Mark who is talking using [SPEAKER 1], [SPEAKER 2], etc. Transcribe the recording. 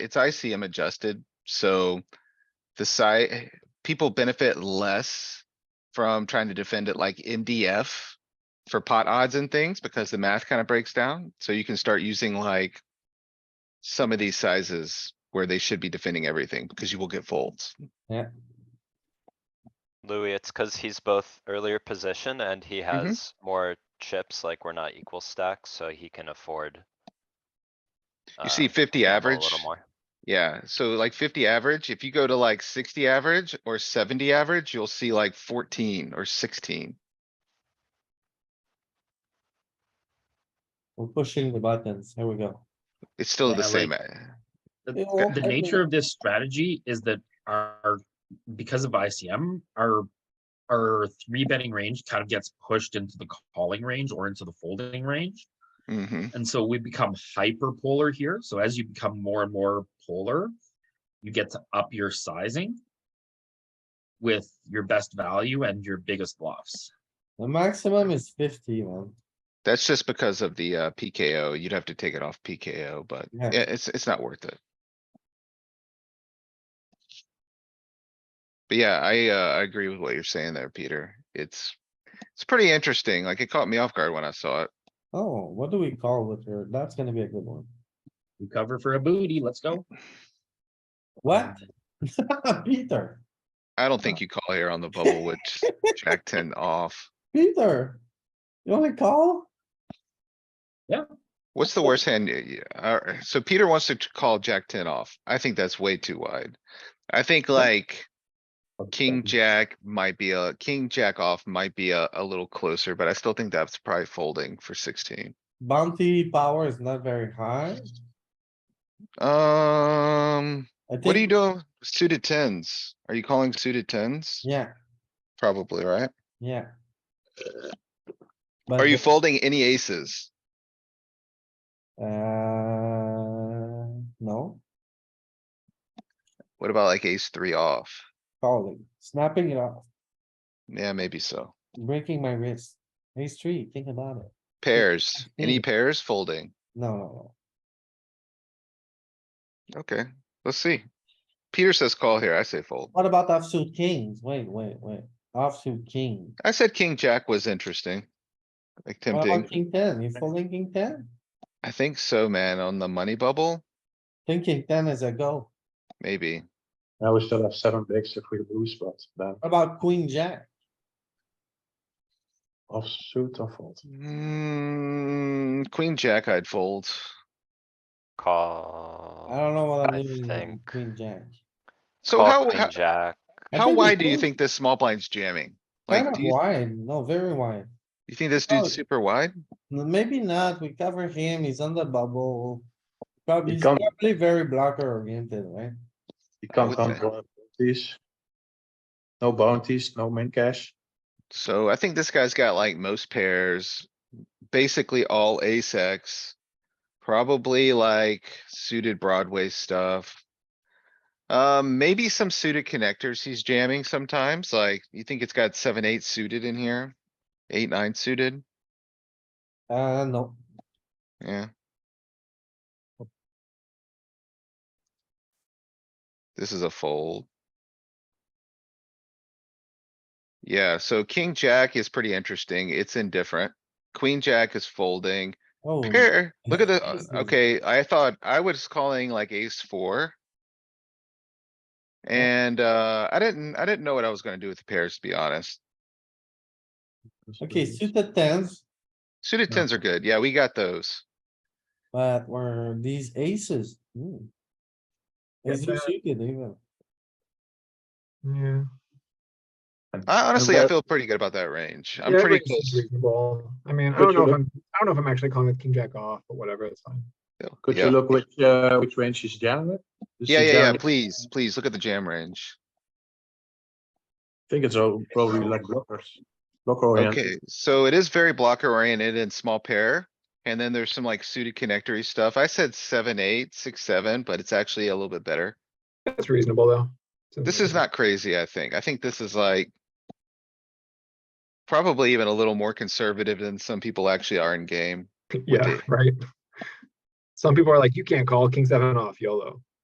[SPEAKER 1] it's ICM adjusted, so the side, people benefit less from trying to defend it like MDF for pot odds and things because the math kind of breaks down. So you can start using like some of these sizes where they should be defending everything because you will get folds.
[SPEAKER 2] Louis, it's cuz he's both earlier position and he
[SPEAKER 1] Mm-hmm.
[SPEAKER 2] has more chips, like we're not equal stacks, so he can afford.
[SPEAKER 1] You
[SPEAKER 2] uh,
[SPEAKER 1] see fifty
[SPEAKER 2] gamble A
[SPEAKER 1] average,
[SPEAKER 2] little more.
[SPEAKER 1] yeah, so like fifty average, if you go to like sixty average or seventy average, you'll see like fourteen or sixteen.
[SPEAKER 3] We're pushing the buttons. Here we go.
[SPEAKER 1] It's still the
[SPEAKER 4] Yeah,
[SPEAKER 1] same.
[SPEAKER 4] like-
[SPEAKER 1] uh,
[SPEAKER 4] The-
[SPEAKER 3] Yeah,
[SPEAKER 4] The
[SPEAKER 3] I
[SPEAKER 4] nature of this strategy is that our, because of ICM, our, our three betting range kind of gets pushed into the calling range or into the folding range.
[SPEAKER 1] mhm.
[SPEAKER 4] And so we become hyper polar here. So as you become more and more polar, you get to up your sizing with your best value and your biggest bluffs.
[SPEAKER 3] The maximum is fifty, man.
[SPEAKER 1] That's just because of the uh PKO. You'd have to take it off PKO, but
[SPEAKER 3] Yeah.
[SPEAKER 1] yeah, it's, it's not worth it. But yeah, I, uh, I agree with what you're saying there, Peter. It's, it's pretty interesting. Like it caught me off guard when I saw it.
[SPEAKER 3] Oh, what do we call with her? That's gonna be a good one.
[SPEAKER 4] We cover for a booty. Let's go.
[SPEAKER 3] What? Peter,
[SPEAKER 1] I don't think you call here on the bubble with Jack ten off.
[SPEAKER 3] Peter, you wanna call?
[SPEAKER 1] What's the worst hand? y- y- uh, so Peter wants to t- call Jack ten off. I think that's way too wide. I think like. King, jack might be a, king, jack off might be a, a little closer, but I still think that's probably folding for sixteen.
[SPEAKER 3] Bounty power is not very high.
[SPEAKER 1] Um,
[SPEAKER 3] I
[SPEAKER 1] what are you
[SPEAKER 3] think,
[SPEAKER 1] doing? Suited tens? Are you calling suited tens?
[SPEAKER 3] yeah,
[SPEAKER 1] Probably, right?
[SPEAKER 3] yeah.
[SPEAKER 1] Are you folding any aces?
[SPEAKER 3] Uh, no,
[SPEAKER 1] What about like ace three off?
[SPEAKER 3] calling, snapping it off,
[SPEAKER 1] Yeah, maybe so.
[SPEAKER 3] breaking my wrist. Ace three, think about it.
[SPEAKER 1] Pairs, any
[SPEAKER 3] think-
[SPEAKER 1] pairs folding?
[SPEAKER 3] No, no,
[SPEAKER 1] Okay, let's see. Peter says call here. I say fold.
[SPEAKER 3] what about offsuit kings? Wait, wait, wait, offsuit king.
[SPEAKER 1] I said king, jack was interesting. Like
[SPEAKER 3] What about
[SPEAKER 1] tempting.
[SPEAKER 3] King ten, you folding king ten?
[SPEAKER 1] I think so, man. On the money bubble,
[SPEAKER 3] Thinking ten is a go.
[SPEAKER 1] maybe.
[SPEAKER 5] Now we still have seven bigs if we lose, but then
[SPEAKER 3] What about queen jack?
[SPEAKER 5] offsuit or fold.
[SPEAKER 1] Mm, queen jack I'd fold.
[SPEAKER 2] Call.
[SPEAKER 3] I don't know what
[SPEAKER 2] I
[SPEAKER 3] I'm doing with
[SPEAKER 2] think-
[SPEAKER 3] queen jack.
[SPEAKER 1] Uh, So
[SPEAKER 2] call
[SPEAKER 1] how,
[SPEAKER 2] queen
[SPEAKER 1] how,
[SPEAKER 2] Jack.
[SPEAKER 3] I
[SPEAKER 1] how
[SPEAKER 3] think
[SPEAKER 1] wide do you
[SPEAKER 3] it's
[SPEAKER 1] think this small blind's jamming?
[SPEAKER 3] Kind
[SPEAKER 1] Like,
[SPEAKER 3] of
[SPEAKER 1] do you,
[SPEAKER 3] wide, no, very wide.
[SPEAKER 1] you think this
[SPEAKER 3] Oh.
[SPEAKER 1] dude's super wide?
[SPEAKER 3] No, Maybe not, we cover him, he's on the bubble. Probably,
[SPEAKER 5] He
[SPEAKER 3] he's
[SPEAKER 5] can't-
[SPEAKER 3] probably very blocker oriented, right?
[SPEAKER 5] You
[SPEAKER 1] I
[SPEAKER 5] can't
[SPEAKER 1] would say-
[SPEAKER 5] control bounties. No bounties, no min cash.
[SPEAKER 1] So I think this guy's got like most pairs, basically all ace X. Probably like suited Broadway stuff. Um, maybe some suited connectors he's jamming sometimes, like you think it's got seven, eight suited in here? Eight, nine suited,
[SPEAKER 3] Uh, no,
[SPEAKER 1] yeah.
[SPEAKER 3] Oh.
[SPEAKER 1] This is a fold. Yeah, so king, jack is pretty interesting. It's indifferent. Queen, jack is folding.
[SPEAKER 3] oh,
[SPEAKER 1] Pair, look at the,
[SPEAKER 3] This is-
[SPEAKER 1] uh, okay, I thought I was calling like ace four. And, uh, I didn't, I didn't know what I was gonna do with the pairs, to be honest.
[SPEAKER 3] okay, suited tens,
[SPEAKER 1] Suited
[SPEAKER 5] Yeah.
[SPEAKER 1] tens are good. Yeah, we got those.
[SPEAKER 3] but were these aces? Hmm.
[SPEAKER 5] Yeah,
[SPEAKER 3] Is he
[SPEAKER 5] but-
[SPEAKER 3] suited even?
[SPEAKER 6] Yeah.
[SPEAKER 1] I honestly, I
[SPEAKER 5] that-
[SPEAKER 1] feel pretty good about that range. I'm
[SPEAKER 6] Yeah,
[SPEAKER 1] pretty
[SPEAKER 6] raise is
[SPEAKER 1] close.
[SPEAKER 6] reasonable. I mean, I
[SPEAKER 5] Could
[SPEAKER 6] don't know
[SPEAKER 5] you
[SPEAKER 6] if I'm, I don't know if I'm actually calling it king jack off, but whatever, it's fine.
[SPEAKER 5] Could
[SPEAKER 1] Yeah.
[SPEAKER 5] you look which, uh, which range is jamming it? Is
[SPEAKER 1] Yeah,
[SPEAKER 5] he
[SPEAKER 1] yeah, yeah,
[SPEAKER 5] jamming-
[SPEAKER 1] please, please, look at the jam range.
[SPEAKER 5] I think it's all probably like blockers, blocker oriented.
[SPEAKER 1] Okay, so it is very blocker oriented and small pair. And then there's some like suited connectory stuff. I said seven, eight, six, seven, but it's actually a little bit better.
[SPEAKER 6] That's reasonable though. It's
[SPEAKER 1] This is
[SPEAKER 6] reasonable.
[SPEAKER 1] not crazy, I think. I think this is like. Probably even a little more conservative than some people actually are in game.
[SPEAKER 6] Yeah,
[SPEAKER 1] the-
[SPEAKER 6] right. Some people are like, you can't call king seven off YOLO.